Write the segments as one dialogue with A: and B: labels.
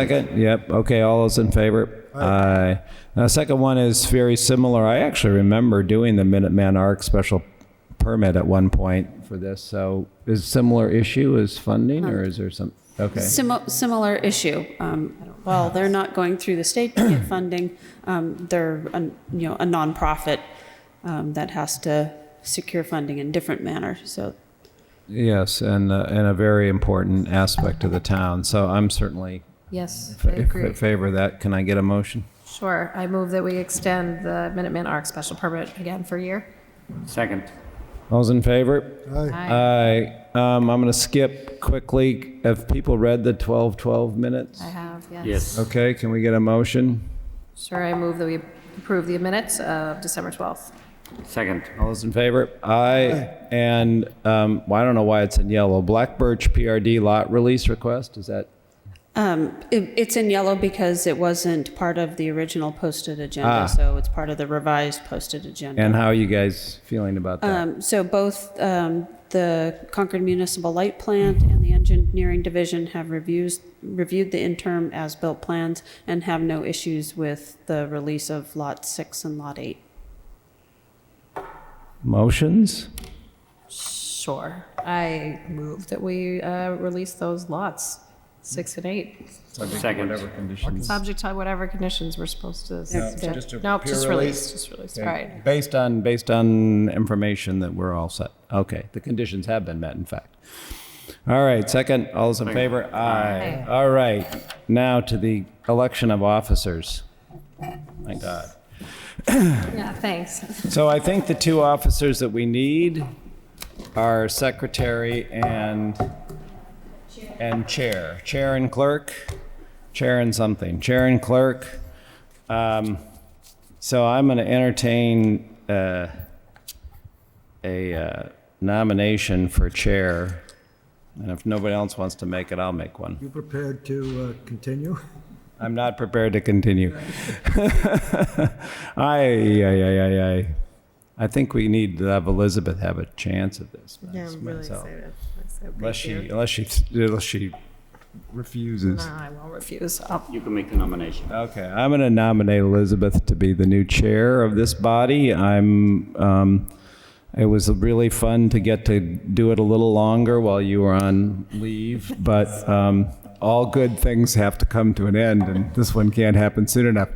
A: Second, yep, okay, all those in favor? Aye. Now, the second one is very similar. I actually remember doing the Minuteman Arc special permit at one point for this, so is similar issue is funding, or is there some, okay.
B: Simi- Similar issue. Um, Well, they're not going through the state to get funding. Um, They're, a- you know, a nonprofit um, that has to secure funding in different manner. So
A: Yes, and, uh, and a very important aspect to the town, so I'm certainly
C: Yes, I
A: fa-
C: agree.
A: fa- favor of that. Can I get a motion?
C: Sure. I move that we extend the Minuteman Arc special permit again for a year.
D: Second.
A: All's in favor?
C: Aye.
A: Aye. Um, I'm going to skip quickly. Have people read the 12-12 minutes?
C: I have, yes.
D: Yes.
A: Okay, can we get a motion?
C: Sure, I move that we approve the minutes of December 12th.
D: Second.
A: All those in favor? Aye. And, um, well, I don't know why it's in yellow. Black Birch PRD lot release request, is that?
B: um, it- it's in yellow because it wasn't part of the original posted
A: Ah.
B: agenda. So it's part of the revised posted agenda.
A: And how are you guys feeling about that?
B: Um, So both um, the Concord Municipal Light Plant and the Engineering Division have reviews, reviewed the interim as-built plans and have no issues with the release of Lot 6 and Lot 8.
A: Motions?
C: Sure. I move that we uh, release those lots, six and eight,
D: Second.
A: conditions.
C: subject to whatever conditions we're supposed to.
A: just a
C: subject- Nope,
A: pure
C: just
A: release.
C: release, just release. All right.
A: Based on, based on information that we're all set. Okay, the conditions have been met, in fact. All right, second, all those in favor? Aye. All right, now to the election of officers. My God.
C: Yeah, thanks.
A: So I think the two officers that we need are secretary and, and chair. Chair and clerk, chair and something, chair and clerk. Um, So I'm going to entertain uh, a uh, nomination for chair. And if nobody else wants to make it, I'll make one.
E: You prepared to uh, continue?
A: I'm not prepared to continue. Aye, aye, aye, aye, aye. I think we need to have Elizabeth have a chance at this.
F: Yeah, I'm really
A: myself.
F: excited.
A: Unless she, unless she, unless she refuses.
C: No, I will refuse. I'll-
D: You can make the nomination.
A: Okay, I'm going to nominate Elizabeth to be the new chair of this body. I'm, um, it was really fun to get to do it a little longer while you were on leave, but, um, all good things have to come to an end, and this one can't happen soon enough.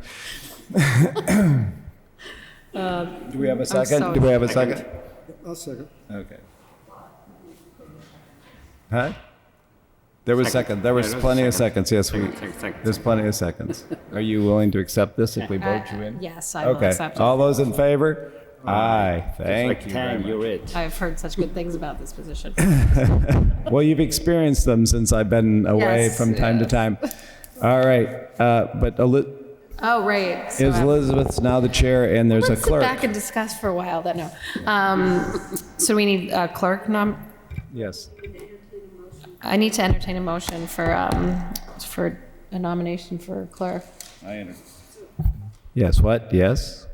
A: Do we have a second?
C: so-
A: Do we have a second?
E: I'll second.
A: Okay. Huh? There was
D: Second.
A: second, there was
D: Yeah, there was a
A: plenty of
D: second.
A: seconds, yes, we,
D: Second, second, second,
A: there's plenty of seconds. Are you willing to accept this if we vote you in?
C: Yes, Uh, I will
A: Okay,
C: accept
A: all
C: it.
A: those in favor? Aye,
D: Like
A: thank you very
D: Tang,
A: much.
D: you're it.
C: I've heard such good things about this position.
A: Well, you've experienced them since I've been away
C: Yes,
A: from time to
C: yes.
A: time. All right, uh, but Eli-
C: Oh, right. so
A: is
C: I'm-
A: Elizabeth's now the chair and there's a
C: Let's sit back
A: clerk?
C: and discuss for a while, then, no. Um, So we need a clerk nom,
A: Yes,
C: I need to entertain a motion for, um, for a nomination for clerk.
A: yes, what, yes?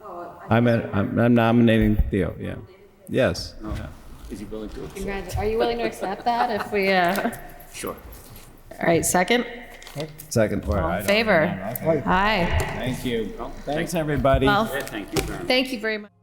C: Oh,
A: I'm, at- I'm I'm nominating Theo, yeah. Yes.
D: Is he willing to?
C: Are you willing to accept that if we, uh?
D: Sure.
C: All right, second?
A: Second part.
C: All in favor? Aye.
A: Thank you. Thanks, everybody.
C: Well,
D: Yeah, thank you very much.
C: thank you very much.